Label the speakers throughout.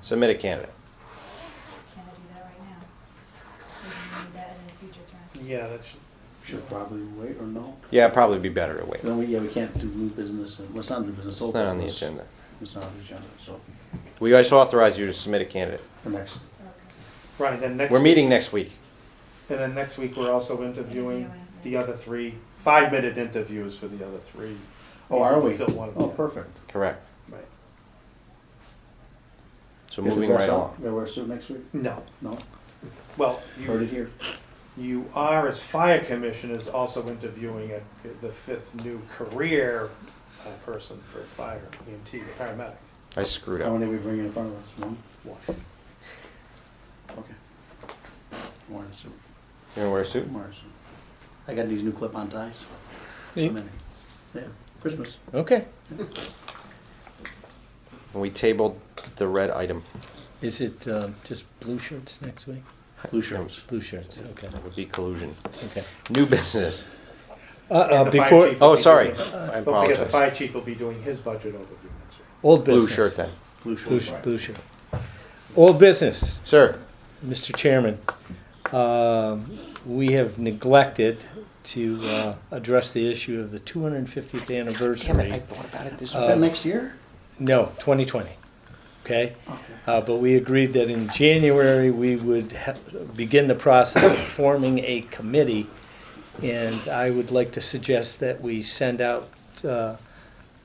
Speaker 1: submit a candidate.
Speaker 2: Can I do that right now? We can do that in a future term.
Speaker 3: Yeah, that should,
Speaker 4: Should probably wait or no?
Speaker 1: Yeah, it'd probably be better to wait.
Speaker 4: Then we, yeah, we can't do new business, and, well, it's not new business,
Speaker 1: It's
Speaker 4: old
Speaker 1: not on the
Speaker 4: business.
Speaker 1: agenda.
Speaker 4: It's not on the agenda, so,
Speaker 1: We just authorize you to submit a candidate.
Speaker 4: for next,
Speaker 2: Okay.
Speaker 3: right, then next.
Speaker 1: We're
Speaker 3: week-
Speaker 1: meeting next week.
Speaker 3: And then next week, we're also interviewing
Speaker 2: Interviewing.
Speaker 3: the other three, five-minute interviews for the other three.
Speaker 4: oh, are we?
Speaker 3: Fill one of
Speaker 4: Oh,
Speaker 3: them.
Speaker 4: perfect.
Speaker 1: Correct.
Speaker 3: Right.
Speaker 1: So
Speaker 4: Is the
Speaker 1: moving
Speaker 4: dress
Speaker 1: right
Speaker 4: up?
Speaker 1: along.
Speaker 4: Gotta wear a suit next week?
Speaker 3: No,
Speaker 4: No,
Speaker 3: well,
Speaker 4: heard
Speaker 3: you,
Speaker 4: it here.
Speaker 3: you are, as fire commissioners, also interviewing a- the fifth new career uh, person for fire, E EMT, paramedic.
Speaker 1: I screwed
Speaker 4: How
Speaker 1: up.
Speaker 4: many we bring in front of us, one?
Speaker 3: One.
Speaker 4: Okay. Wearing a suit,
Speaker 1: You gonna wear a suit?
Speaker 4: I'm wearing a suit. I got these new clip-on ties.
Speaker 5: Hmm?
Speaker 4: I'm in it. Yeah, Christmas.
Speaker 5: Okay.
Speaker 1: We tabled the red item.
Speaker 5: Is it um, just blue shirts next week?
Speaker 4: Blue shirts.
Speaker 5: Blue shirts, okay,
Speaker 1: That would be collusion.
Speaker 5: okay.
Speaker 1: New business.
Speaker 5: Uh, uh,
Speaker 3: And the fire
Speaker 5: Before,
Speaker 3: chief will
Speaker 1: Oh,
Speaker 3: be
Speaker 1: sorry.
Speaker 3: doing-
Speaker 1: I
Speaker 3: Don't forget, the
Speaker 1: apologize.
Speaker 3: fire chief will be doing his budget overview next week.
Speaker 5: old
Speaker 1: Blue
Speaker 5: business.
Speaker 1: shirt then.
Speaker 4: Blue
Speaker 5: Blue
Speaker 4: shirts.
Speaker 5: sh- blue shirt. Old business,
Speaker 1: Sir,
Speaker 5: Mr. Chairman. Um, We have neglected to uh, address the issue of the 250th anniversary.
Speaker 1: thought about it this
Speaker 4: Is
Speaker 5: Uh,
Speaker 4: that next year?
Speaker 5: No, 2020, okay?
Speaker 4: Okay.
Speaker 5: Uh, But we agreed that in January, we would ha- begin the process of forming a committee. And I would like to suggest that we send out uh,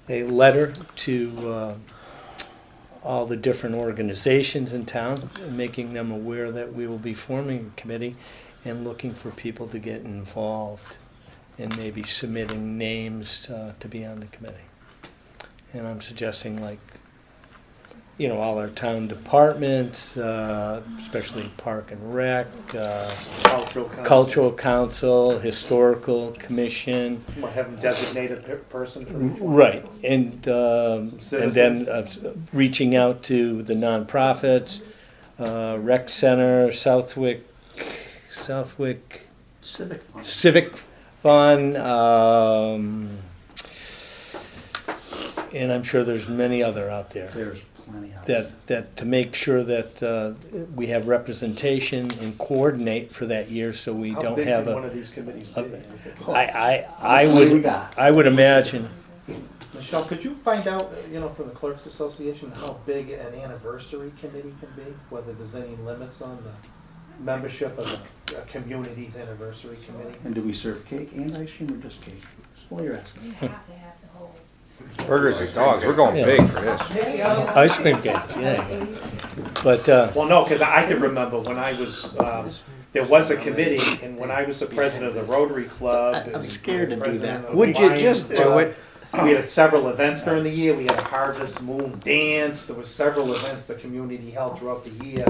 Speaker 5: a letter to uh, all the different organizations in town, making them aware that we will be forming a committee and looking for people to get involved and maybe submitting names uh, to be on the committee. And I'm suggesting like you know, all our town departments, uh, especially Park and Rec, uh,
Speaker 3: Cultural. council.
Speaker 5: Cultural Council, Historical Commission,
Speaker 3: Might have him designate a pe- person for each one.
Speaker 5: Mm, right, and, um, and then
Speaker 3: Citizens.
Speaker 5: uh, s- reaching out to the nonprofits, uh, Rec Center, Southwick, Southwick
Speaker 4: Civic fun.
Speaker 5: Civic Fun, um, and I'm sure there's many other out there.
Speaker 4: There's plenty out there.
Speaker 5: that, that, to make sure that uh, we have representation and coordinate for that year, so we
Speaker 3: How
Speaker 5: don't
Speaker 3: big
Speaker 5: have
Speaker 3: can one
Speaker 5: a,
Speaker 3: of these committees
Speaker 5: a-
Speaker 3: be?
Speaker 5: I, I, I
Speaker 4: What do we
Speaker 5: would,
Speaker 4: got?
Speaker 5: I would imagine,
Speaker 3: Michelle, could you find out, uh, you know, from the Clerks Association, how big an anniversary committee can be? Whether there's any limits on the membership of a, a community's anniversary committee?
Speaker 4: And do we serve cake and ice cream or just cake? That's all you're asking.
Speaker 2: You have to have the whole.
Speaker 1: burgers and dogs, we're going
Speaker 5: Yeah.
Speaker 1: big for this.
Speaker 5: ice cream cake, yeah. But, uh,
Speaker 3: Well, no, because I can remember when I was, um, there was a committee, and when I was the president of the Rotary Club.
Speaker 4: I'm
Speaker 3: and
Speaker 4: scared to do
Speaker 3: president
Speaker 4: that.
Speaker 3: of the
Speaker 6: Would you
Speaker 3: Lions
Speaker 6: just do
Speaker 3: Club,
Speaker 6: it?
Speaker 3: We had several events during the year, we had a Harvest Moon Dance, there was several events the community held throughout the year,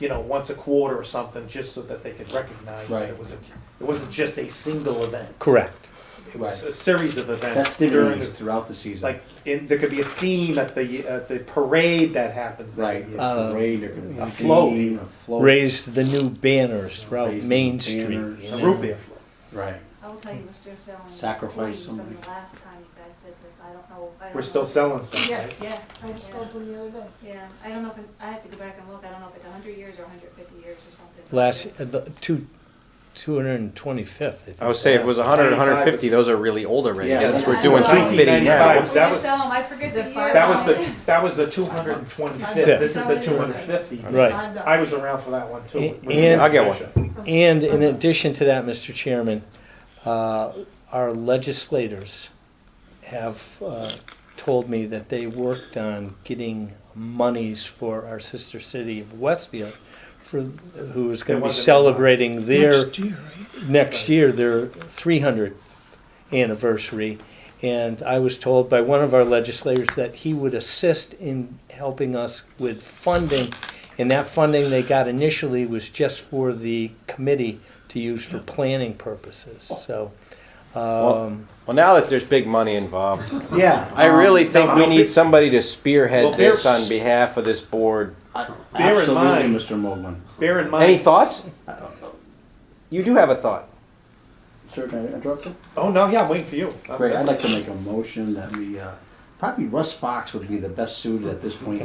Speaker 3: you know, once a quarter or something, just so that they could recognize that it
Speaker 4: Right.
Speaker 3: was a, it wasn't just a single event.
Speaker 5: correct,
Speaker 3: It was a series of
Speaker 4: That
Speaker 3: events during,
Speaker 4: stimulates
Speaker 3: the-
Speaker 4: throughout the season.
Speaker 3: like, in, there could be a theme at the, at the parade that happens that
Speaker 4: Right,
Speaker 3: year.
Speaker 5: Uh,
Speaker 4: a parade, there could be
Speaker 3: a
Speaker 4: a
Speaker 3: float.
Speaker 4: theme, a float.
Speaker 5: raise the new banners throughout
Speaker 4: Raise
Speaker 5: Main
Speaker 4: the
Speaker 5: Street.
Speaker 4: banners.
Speaker 5: you
Speaker 3: A
Speaker 5: know.
Speaker 3: root beer float.
Speaker 4: Right.
Speaker 2: I will tell you, we're still selling.
Speaker 4: Sacrifice
Speaker 2: coins
Speaker 4: somebody.
Speaker 2: From the last time you guys did this, I don't know. I don't
Speaker 3: We're
Speaker 2: know
Speaker 3: still
Speaker 2: if it's-
Speaker 3: selling stuff,
Speaker 2: Yes,
Speaker 3: right?
Speaker 2: yeah,
Speaker 7: I just
Speaker 2: yeah.
Speaker 7: sold one the other day.
Speaker 2: Yeah, I don't know if, it- I have to go back and look, I don't know if it's hundred years or hundred fifty years or something.
Speaker 5: Last, uh, the two, two hundred and twenty-fifth, I think.
Speaker 1: I would say if it was 100, 150, those are really old already,
Speaker 4: Yeah,
Speaker 1: since
Speaker 4: that's
Speaker 1: we're
Speaker 4: what
Speaker 1: doing
Speaker 2: I thought.
Speaker 1: 250 now.
Speaker 3: 1995.
Speaker 2: When
Speaker 3: that
Speaker 2: you
Speaker 3: was-
Speaker 2: sell 'em, I forget the
Speaker 7: The
Speaker 2: year.
Speaker 3: That was
Speaker 2: on it.
Speaker 3: the, that was the two hundred and twenty-fifth, this is the two hundred and fifty.
Speaker 5: Right.
Speaker 3: I was around for that one too.
Speaker 5: And-
Speaker 3: With-
Speaker 1: I'll get one.
Speaker 5: And in addition to that, Mr. Chairman, uh, our legislators have uh, told me that they worked on getting monies for our sister city of Westfield, for, who is going
Speaker 3: There wasn't
Speaker 5: to be
Speaker 3: enough.
Speaker 5: celebrating their,
Speaker 6: Next year, right?
Speaker 5: next year, their 300th anniversary. And I was told by one of our legislators that he would assist in helping us with funding. And that funding they got initially was just for the committee to use for planning purposes, so. um,
Speaker 1: Well, now that there's big money involved,
Speaker 4: Yeah.
Speaker 1: I
Speaker 4: um,
Speaker 1: really think
Speaker 3: no,
Speaker 1: we
Speaker 3: no,
Speaker 1: need
Speaker 3: but-
Speaker 1: somebody to
Speaker 3: Well,
Speaker 1: spearhead
Speaker 3: bear-
Speaker 1: this on behalf of this board.
Speaker 4: I-
Speaker 3: Bear in
Speaker 4: Absolutely,
Speaker 3: mind-
Speaker 4: Mr. Moglen.
Speaker 3: Bear in
Speaker 1: Any
Speaker 3: mind,
Speaker 1: thoughts? You do have a thought.
Speaker 4: Sir, can I interrupt you?
Speaker 3: oh no, yeah, I'm waiting for you. I'm-
Speaker 4: Great, I'd like to make a motion that we, uh, probably Russ Fox would be the best suited at this point